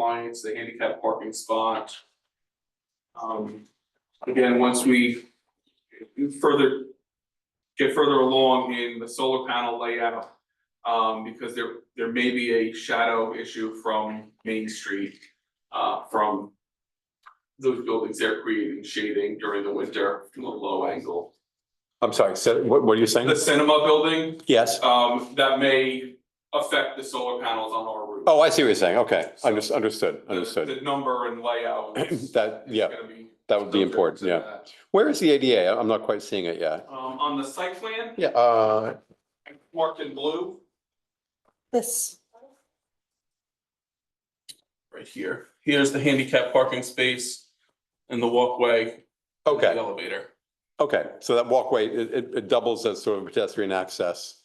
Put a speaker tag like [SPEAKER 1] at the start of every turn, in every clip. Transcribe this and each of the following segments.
[SPEAKER 1] compliance, the handicap parking spot. Um, again, once we further get further along in the solar panel layout, um, because there, there may be a shadow issue from Main Street, uh, from those buildings they're creating shading during the winter from a low angle.
[SPEAKER 2] I'm sorry, so what, what are you saying?
[SPEAKER 1] The cinema building,
[SPEAKER 2] Yes.
[SPEAKER 1] um, that may affect the solar panels on our roof.
[SPEAKER 2] Oh, I see what you're saying. Okay, Unders- understood, understood.
[SPEAKER 1] The number and layout is.
[SPEAKER 2] That,
[SPEAKER 1] is
[SPEAKER 2] yeah,
[SPEAKER 1] gonna be
[SPEAKER 2] that would be important,
[SPEAKER 1] subject
[SPEAKER 2] yeah.
[SPEAKER 1] to
[SPEAKER 2] Where is the ADA? I- I'm not quite seeing it
[SPEAKER 1] that.
[SPEAKER 2] yet.
[SPEAKER 1] Um, on the site plan,
[SPEAKER 2] Yeah, uh,
[SPEAKER 1] marked in blue,
[SPEAKER 3] This,
[SPEAKER 1] right here, here's the handicap parking space and the walkway. and the
[SPEAKER 2] okay,
[SPEAKER 1] Elevator.
[SPEAKER 2] okay. So that walkway, it, it- it doubles as sort of pedestrian access.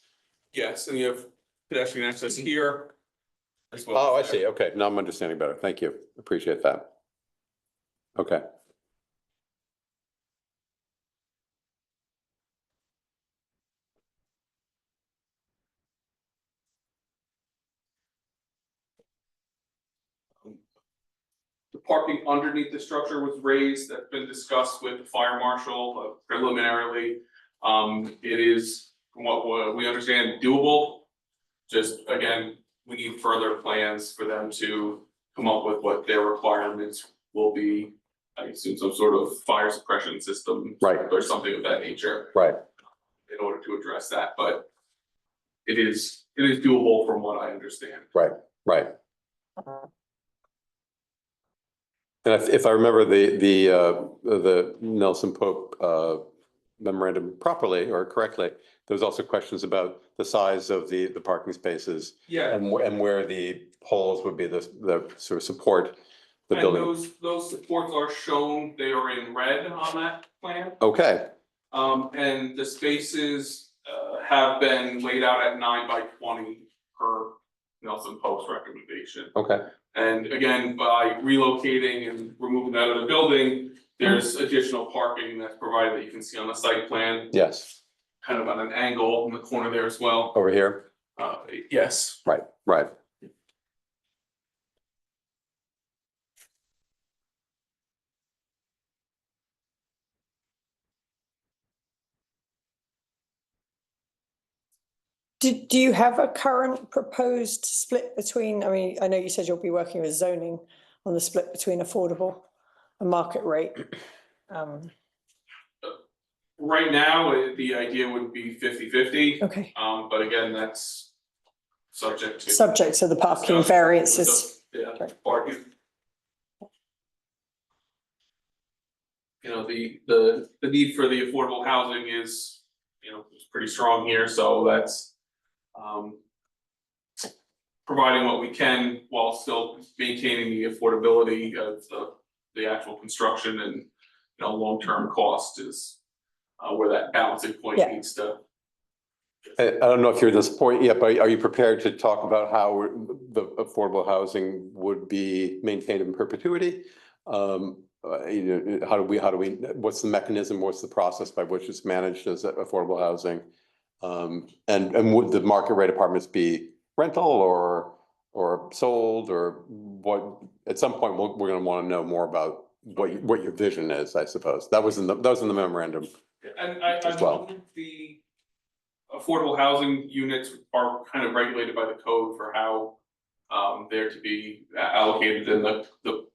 [SPEAKER 1] Yes, and you have pedestrian access here. as well.
[SPEAKER 2] Oh, I see. Okay, now I'm understanding better. Thank you. Appreciate that. Okay.
[SPEAKER 1] The parking underneath the structure was raised, that's been discussed with the fire marshal uh, preliminarily. Um, it is, from what wa- we understand, doable. Just again, we need further plans for them to come up with what their requirements will be. I assume some sort of fire suppression system.
[SPEAKER 2] Right.
[SPEAKER 1] Or something of that nature
[SPEAKER 2] Right.
[SPEAKER 1] in order to address that, but it is, it is doable from what I understand.
[SPEAKER 2] Right. And if, if I remember the, the, uh, the Nelson Pope, uh, memorandum properly or correctly, there was also questions about the size of the, the parking spaces
[SPEAKER 1] Yeah,
[SPEAKER 2] and, wh- and where the poles would be the, the sort of support the
[SPEAKER 1] and
[SPEAKER 2] building.
[SPEAKER 1] those, those supports are shown, they are in red on that plan.
[SPEAKER 2] Okay,
[SPEAKER 1] Um, and the spaces, uh, have been laid out at nine by twenty per Nelson Post recommendation.
[SPEAKER 2] okay,
[SPEAKER 1] And again, by relocating and removing that of the building, there's additional parking that's provided that you can see on the site plan,
[SPEAKER 2] yes,
[SPEAKER 1] kind of at an angle in the corner there as well.
[SPEAKER 2] over here,
[SPEAKER 1] Uh, yes,
[SPEAKER 2] right, right.
[SPEAKER 3] do, do you have a current proposed split between, I mean, I know you said you'll be working with zoning on the split between affordable and market rate. Um,
[SPEAKER 1] Right now, it- the idea would be 50-50.
[SPEAKER 3] okay,
[SPEAKER 1] um, but again, that's subject to.
[SPEAKER 3] subject to the parking
[SPEAKER 1] discuss-
[SPEAKER 3] variances.
[SPEAKER 1] Yeah,
[SPEAKER 3] Right.
[SPEAKER 1] parking. You know, the, the, the need for the affordable housing is, you know, is pretty strong here, so that's, um, providing what we can while still maintaining the affordability of the, the actual construction and, you know, long-term cost is, uh, where that balancing point
[SPEAKER 3] Yeah.
[SPEAKER 1] needs to
[SPEAKER 2] Uh, I, I don't know if you're at this point yet, but are you prepared to talk about how the affordable housing would be maintained in perpetuity? Um, uh, you know, how do we, how do we, what's the mechanism, what's the process by which it's managed as affordable housing? Um, and, and would the market rate apartments be rental or, or sold or what? At some point, we're, we're gonna wanna know more about what, you- what your vision is, I suppose. That was in the, that was in the memorandum.
[SPEAKER 1] And I, I
[SPEAKER 2] As well.
[SPEAKER 1] believe the affordable housing units are kind of regulated by the code for how um, they're to be a- allocated in the, the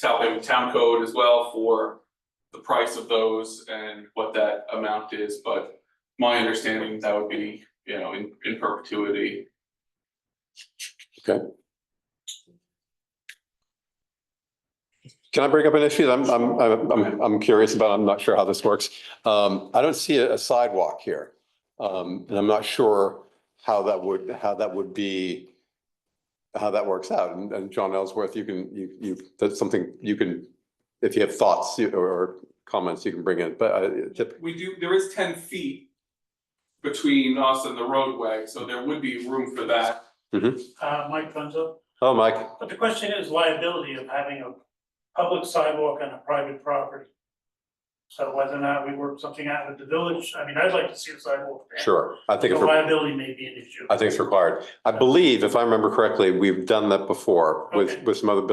[SPEAKER 1] town, town code as well for the price of those and what that amount is, but my understanding that would be, you know, in, in perpetuity.
[SPEAKER 2] Can I bring up an issue that I'm, I'm, I'm- I'm, I'm curious about? I'm not sure how this works. Um, I don't see a sidewalk here. Um, and I'm not sure how that would, how that would be, how that works out. And, and John Ellsworth, you can, you, you, that's something you can, if you have thoughts you- or comments, you can bring in, but I, tip-
[SPEAKER 1] We do, there is ten feet between us and the roadway, so there would be room for that.
[SPEAKER 4] Uh, Mike Funzo,
[SPEAKER 2] oh, Mike,
[SPEAKER 4] but the question is liability of having a public sidewalk on a private property. So whether or not we work something out with the village, I mean, I'd like to see a sidewalk there.
[SPEAKER 2] sure. I think
[SPEAKER 4] The
[SPEAKER 2] it's, re-
[SPEAKER 4] liability may be an issue.
[SPEAKER 2] I think it's required. I believe, if I remember correctly, we've done that before with,
[SPEAKER 4] Okay.
[SPEAKER 2] with some other